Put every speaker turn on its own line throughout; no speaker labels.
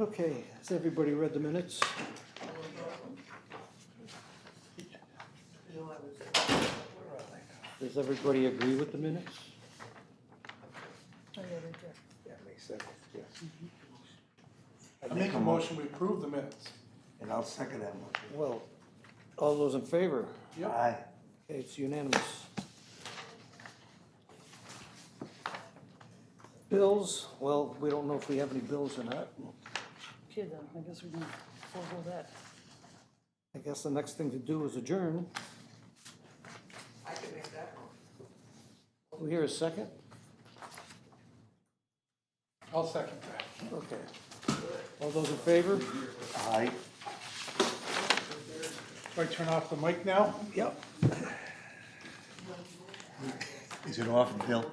Okay, has everybody read the minutes? Does everybody agree with the minutes?
Yeah, May second, yes.
I make a motion, we approve the minutes.
And I'll second that motion.
Well, all those in favor?
Yep,
Aye.
Okay, It's unanimous. Bills, well, we don't know if we have any bills or not.
Okay, then, I guess we can forego that.
I guess the next thing to do is adjourn.
I can make that one.
We hear a second?
I'll second that.
Okay. All those in favor?
Aye.
Do I turn off the mic now?
Yep.
Is it off, Bill?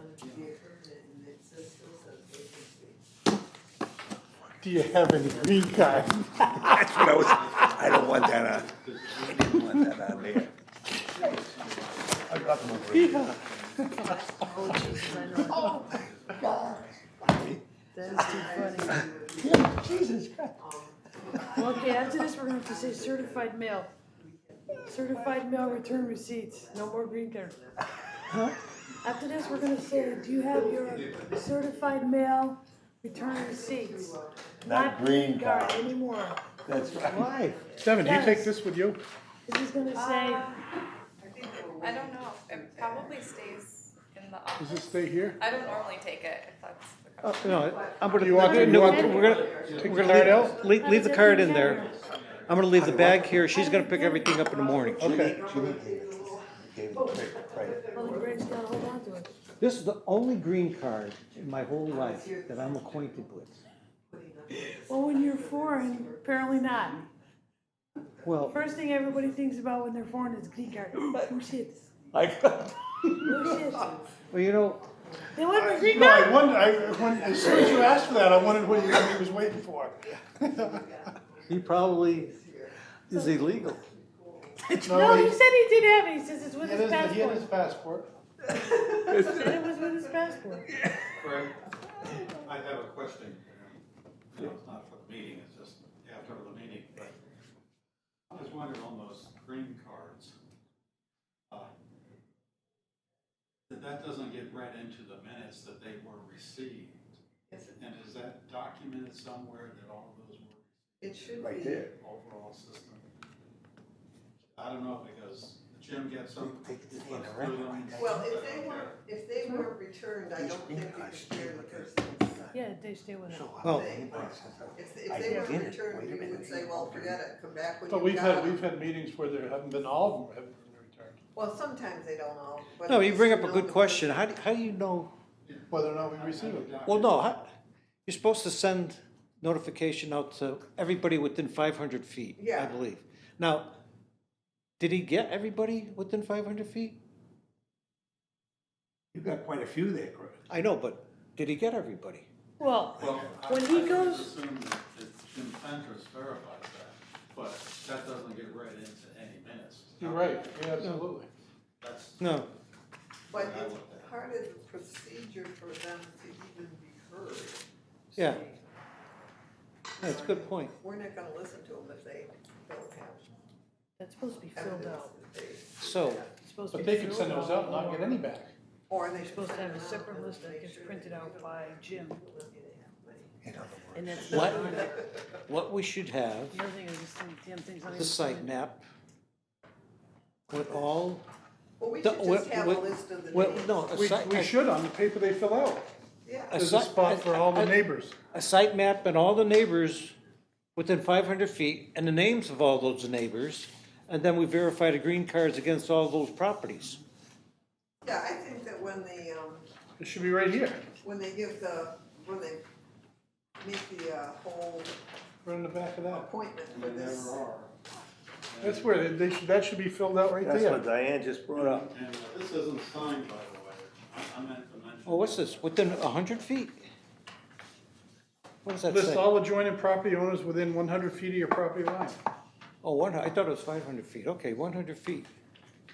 Do you have any green card?
That's what I was, I don't want that on. I didn't want that on there. I got them over here.
Oh, Jesus, I know. That is too funny.
Yeah, Jesus Christ.
Well, Okay, after this, we're gonna have to say certified mail. Certified mail return receipts, no more green card. After this, we're gonna say, do you have your certified mail return receipts?
Not green card.
Anymore.
That's right.
Why?
Devin, do you take this with you?
This is gonna say,
I don't know. It probably stays in the office.
Does it stay here?
I don't normally take it if that's the question.
Uh, No, I'm gonna,
You want-
we're
you want-
gonna, we're gonna-
Take
we're
the card
gonna
out?
leave, leave the card in there. I'm gonna leave the bag here, she's gonna pick everything up in the morning.
Okay.
Jimmy gave it to us. He gave it to me, right.
well, the grade's gotta hold on to it.
This is the only green card in my whole life that I'm acquainted with.
Well, when you're foreign, apparently not.
Well,
First thing everybody thinks about when they're foreign is green card. Oh shit, oh shit.
well, you know,
They want my green
No,
card.
I wondered, I, when, as soon as you asked for that, I wondered what he, what he was waiting for.
he probably is illegal.
No,
he-
he said he didn't have it. He says it's with
He had
his
his, he had his
passport.
passport.
Said it was with his passport.
Frank, I have a question. No, it's not for the meeting, it's just after the meeting, but I was wondering on those green cards. uh, That that doesn't get read into the minutes that they were received. And is that documented somewhere that all of those were
It should be.
Right there.
overall system? I don't know, because Jim gets them.
Take the
he
thing
flips
around
through them,
like that.
Well, if
I
they
don't
were,
care.
if they were returned, I
These
don't
green
think you could
eyes
share the
should be
person's
Yeah, they stay with him.
So uh, I-
Oh.
If,
I
if they were
didn't.
returned,
Wait a
you would
minute.
say, well, forget it, come back when
But
you've
we've had,
got
we've
it.
had meetings where there haven't been all of them haven't been returned.
Well, sometimes they don't know, but.
No,
at
you
least
bring up a
know
good
the-
question, how do, how do you know?
Whether or not we receive it.
Well, no, how- you're supposed to send notification out to everybody within five hundred feet, I
Yeah.
believe. Now, did he get everybody within five hundred feet?
You got quite a few there, Chris.
I know, but did he get everybody?
Well,
Well, I I
When
would
he goes-
assume that that Jim Fentress verifies that, but that doesn't get read into any minutes.
You're right, yeah, absolutely.
That's,
No,
But
Yeah, I
it's
looked at it.
part of the procedure for them to even be heard.
Yeah. that's a good point.
We're not gonna listen to them if they don't have
that's supposed to be filled
evidence
out.
that they.
So,
It's supposed to
But
be
they could
filled
send those out and not get any back.
Or they
They're
should
supposed to have
send
a
them out
separate
and
list that
make
gets
sure
printed
they
out
don't
by Jim.
In other
And
words,
that's
what,
not on it.
what we should have
The other thing is this thing, damn thing's not even.
The site map with all,
Well, we
The-
should
with-
just have a
with-
list of the
well,
names.
no, a
We,
site,
we
a-
should on the paper they fill out.
Yeah,
a
There's a
site,
spot for all the
a,
neighbors.
a site map and all the neighbors within five hundred feet and the names of all those neighbors. And then we verify the green cards against all those properties.
yeah, I think that when they, um,
It should be right here,
when they give the, when they make the, uh, whole
right in the back of that.
appointment
I
for
mean,
this.
there are.
That's where they, they should, that should be filled out right
that's what
there.
Diane just brought up.
And this isn't signed, by the way. I- I meant to mention.
Oh, what's this? Within hundred feet? What does that
List
say?
all adjoining property owners within one hundred feet of your property line.
Oh, one, I thought it was five hundred feet. Okay, one hundred feet.